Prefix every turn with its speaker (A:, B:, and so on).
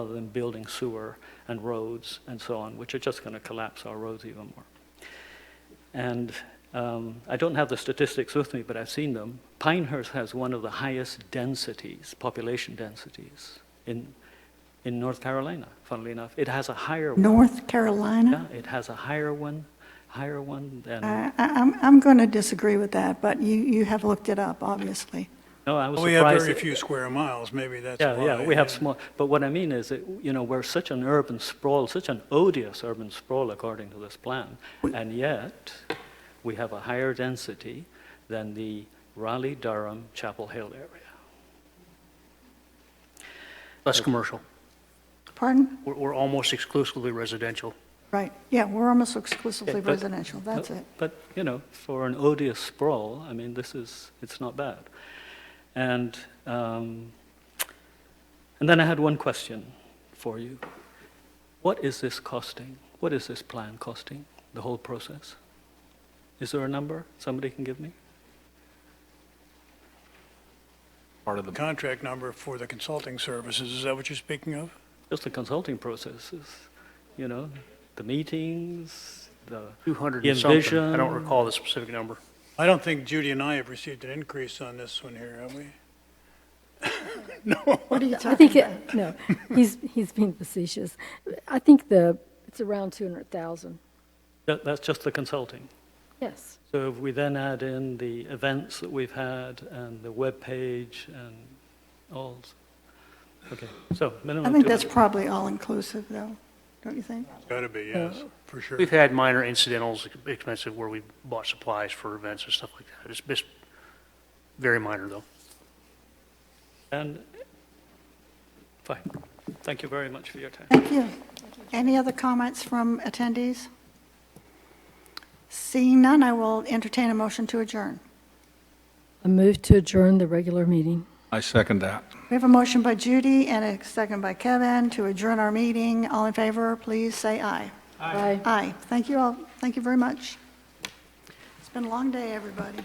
A: other than building sewer and roads and so on, which are just going to collapse our roads even more. And um, I don't have the statistics with me, but I've seen them. Pinehurst has one of the highest densities, population densities, in, in North Carolina, funnily enough. It has a higher one.
B: North Carolina?
A: Yeah, it has a higher one, higher one than.
B: I, I- I'm, I'm going to disagree with that, but you, you have looked it up, obviously.
A: no, I was
C: We
A: surprised.
C: have very
A: that-
C: few square miles, maybe that's why.
A: Yeah, yeah, we have small, but what I mean is, that, you know, we're such an urban sprawl, such an odious urban sprawl according to this plan, and yet, we have a higher density than the Raleigh, Durham, Chapel Hill area.
D: Less commercial.
B: Pardon?
D: We're, we're almost exclusively residential.
B: Right, yeah, we're almost
A: Yeah,
B: exclusively
A: but-
B: residential, that's
A: No,
B: it.
A: But, you know, for an odious sprawl, I mean, this is, it's not bad. And, um, and then I had one question for you. What is this costing? What is this plan costing, the whole process? Is there a number somebody can give me?
E: part of the
C: Contract number for the consulting services, is that what you're speaking of?
A: Just the consulting processes, you know, the meetings, the,
D: 200 and something. I don't
A: Envision.
D: recall the specific number.
C: I don't think Judy and I have received an increase on this one here, have we? No,
B: What are you
F: I
B: talking
F: think,
B: about?
F: it- no, he's, he's being facetious. I think the, it's around 200,000,
A: that, that's just the consulting.
F: yes.
A: So if we then add in the events that we've had and the web page and all, okay, so minimum.
B: I think
A: two
B: that's
A: hundred.
B: probably all-inclusive, though, don't you think?
C: gotta be, yes, for sure.
D: We've had minor incidentals, expensive, where we bought supplies for events and stuff like that. It's just very minor, though.
A: And, fine, thank you very much for your time.
B: Thank you. Any other comments from attendees? Seeing none, I will entertain a motion to adjourn.
F: I move to adjourn the regular meeting.
E: I second that.
B: We have a motion by Judy and a second by Kevin to adjourn our meeting. All in favor, please say aye.
F: Aye.
B: Aye. Thank you all, thank you very much. It's been a long day, everybody.